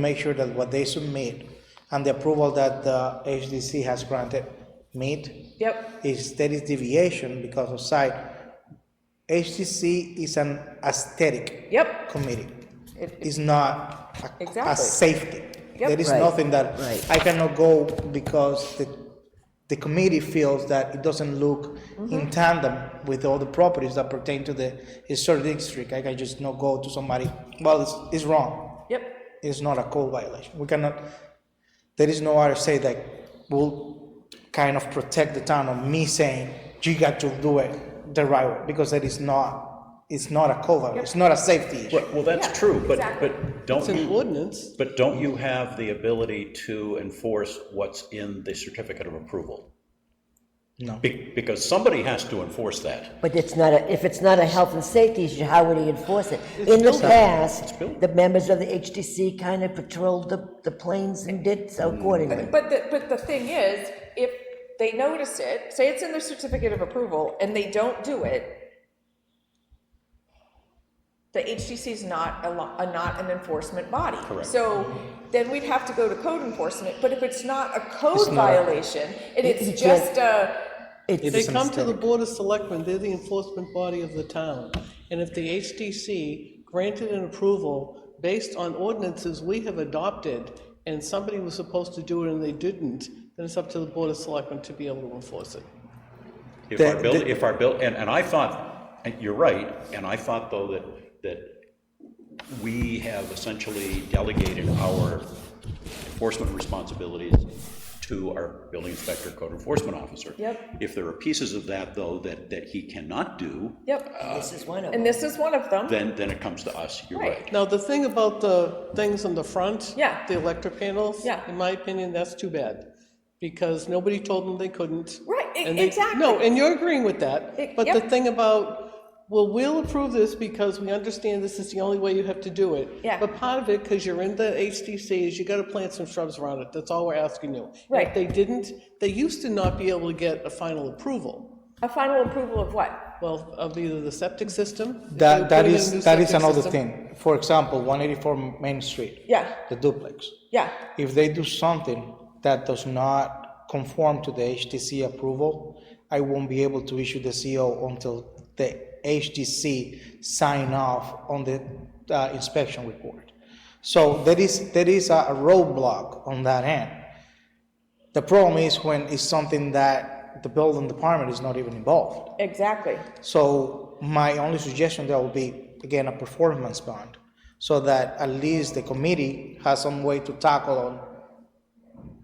make sure that what they submit and the approval that the HDC has granted meet. Yep, If there is deviation because of site, HDC is an aesthetic yep. committee. It- It's not a- a Exactly. safety. Yep. There is Right, nothing that right. I cannot go because the, the committee feels that it doesn't look Mm-hmm. in tandem with all the properties that pertain to the historic district. I can just not go to somebody, well, it's, it's wrong Yep, is not a code violation. We cannot, there is no RSA that will kind of protect the town of me saying, you got to do it the right way, because that is not, it's not a code violation, it's not a safety issue. Well, that's Yeah, true, but, exactly. but don't you, ordinance. but don't you have the ability to enforce what's in the certificate of approval? No, Be- Because somebody has to enforce that. But it's not a, if it's not a health and safety issue, how would he enforce it? In the past, built. the members of the HDC kind of patrolled the, the planes and did Mm. so accordingly. but the, but the thing is, if they notice it, say it's in their certificate of approval, and they don't do it, the HDC is not a, lo- a- not an enforcement body. Correct. So then we'd have to go to code enforcement, but if it's not a It's code not. violation, and you it's can't- just a, It's- They come to the Board of Selectmen, they're the enforcement body of the town. And if the HDC granted an approval based on ordinances we have adopted, and somebody was supposed to do it and they didn't, then it's up to the Board of Selectmen to be able to enforce it. If The- our bill, the- if our bill, and, and I thought, and you're right, and I thought though that, that we have essentially delegated our enforcement responsibilities to our building inspector, code enforcement officer. Yep. If there are pieces of that though, that, that he cannot do, yep, This is one of them. and this is one of them. then, then it comes to us, you're Right. right. Now, the thing about the things on the front. Yeah. The electric panels. Yeah. In my opinion, that's too bad, because nobody told them they couldn't. Right, e- and they- exactly. No, and you're agreeing with that. E- But the yep. thing about, well, we'll approve this because we understand this is the only way you have to do it. Yeah. But part of it, because you're in the HDC, is you gotta plant some shrubs around it. That's all we're asking you. And Right. If they didn't, they used to not be able to get a final approval, A final approval of what? well, of either the septic system. if they were that, that putting in a new is, that is septic another system, thing. For example, one eighty-four Main Street. Yeah. The duplex. Yeah, If they do something that does not conform to the HTC approval, I won't be able to issue the CO until the HTC sign off on the uh, inspection report. So there is, there is a a roadblock on that end. The problem is when it's something that the building department is not even involved. exactly. So my only suggestion there will be, again, a performance bond, so that at least the committee has some way to tackle on,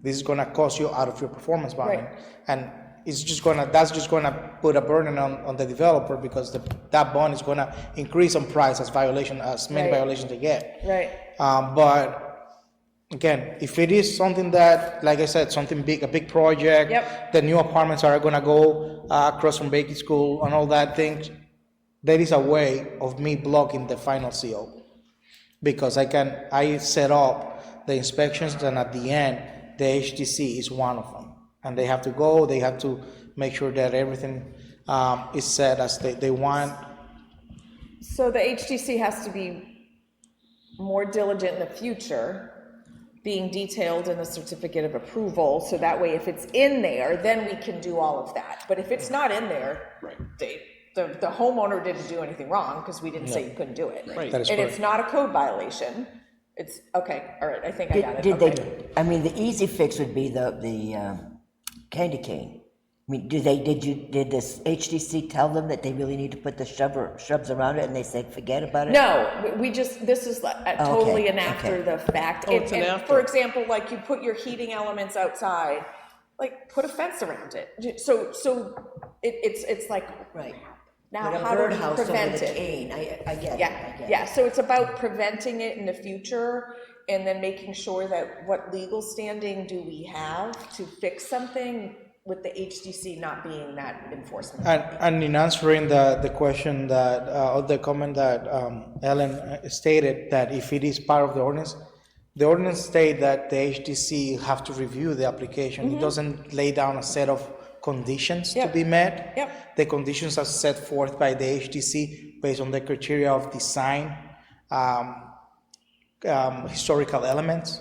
this is gonna cost you out of your performance bond. Right. And it's just gonna, that's just gonna put a burden on, on the developer, because the, that bond is gonna increase on price as violation, as many Right. violations they get. Right. Um, but again, if it is something that, like I said, something big, a big project, Yep. the new apartments are gonna go uh, across from Baker School and all that things, there is a way of me blocking the final CO because I can I set up the inspections and at the end the HTC is one of them and they have to go they have to make sure that everything um, is set as they, they want So the HTC has to be more diligent in the future, being detailed in the certificate of approval, so that way if it's in there, then we can do all of that. But if it's not in there, Right. they, the, the homeowner didn't do anything wrong, because we didn't say you couldn't do it. Right. That is And it's correct. not a code violation, it's, okay, all right, I think I got Did it. did they, okay. I mean, the easy fix would be the, the um, candy cane. I mean, do they, did you, did this HDC tell them that they really need to put the shrub, shrubs around it and they said, forget about it? No, we- we just, this is like a- Okay, totally an okay. after the fact. Oh, it's And- an and after. For example, like you put your heating elements outside, like put a fence around it. So, so it, it's, it's like, Right. now Put a how do birdhouse we over prevent the it? cane. I, I get it, I Yeah, get it. yeah, so it's about preventing it in the future and then making sure that what legal standing do we have to fix something with the HDC not being that enforcement. And, and in answering the, the question that, uh, or the comment that um, Ellen uh, stated, that if it is part of the ordinance, the ordinance state that the HDC have to review the application. It doesn't lay down a set of conditions to Mm-hmm. be Yep. met. Yep. The conditions are set forth by the HDC based on the criteria of design, um, um, historical elements.